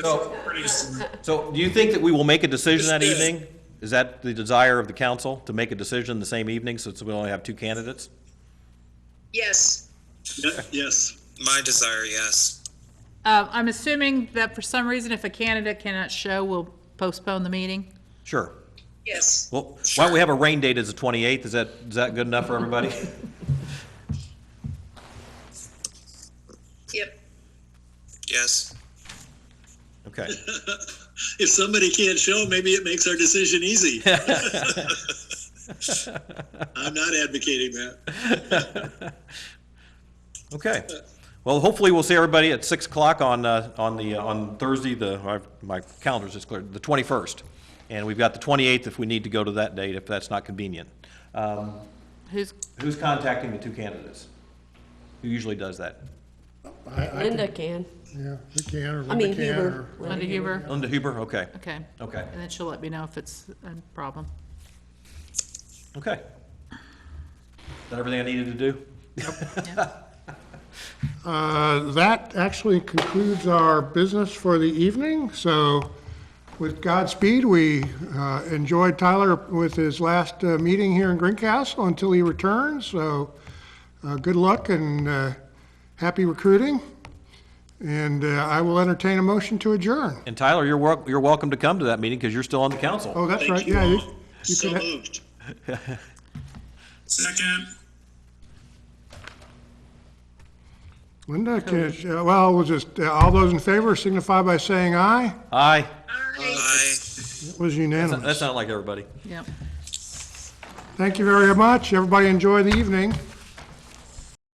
So, Pretty soon. so do you think that we will make a decision that Yes. evening? Is that the desire of the council, to make a decision the same evening, since we only have two candidates? Yes, Yeah, Yes, My desire, yes. Uh, I'm assuming that for some reason, if a candidate cannot show, we'll postpone the meeting. Sure. yes. Well, why don't we have a rain date as the 28th? Is that, is that good enough for everybody? Yep. Yes. Okay. if somebody can't show, maybe it makes our decision easy. I'm not advocating that. Okay. Well, hopefully we'll see everybody at 6 o'clock on, uh, on the, on Thursday, the, I- my calendar's just cleared, the 21st. And we've got the 28th if we need to go to that date, if that's not convenient. Um, Who's, Who's contacting the two candidates? Who usually does that? Linda can. Yeah, we can, or I Linda mean, can, Huber. or, Linda Huber? Linda Huber? Okay, Okay. okay, And then she'll let me know if it's a problem. okay. Is that everything I needed to do? uh, that actually concludes our business for the evening, so with Godspeed, we, uh, enjoyed Tyler with his last, uh, meeting here in Greencastle until he returns, so, uh, good luck and, uh, happy recruiting. And, uh, I will entertain a motion to adjourn. And Tyler, you're, wel- you're welcome to come to that meeting because you're still on the council. Oh, that's Thank right, you yeah, you, all. you So could, ha- moved. Second. Linda, can- uh, well, we'll just, uh, all those in favor signify by saying aye. Aye. I. It was unanimous. That sounded like everybody. Yep. Thank you very much. Everybody enjoy the evening.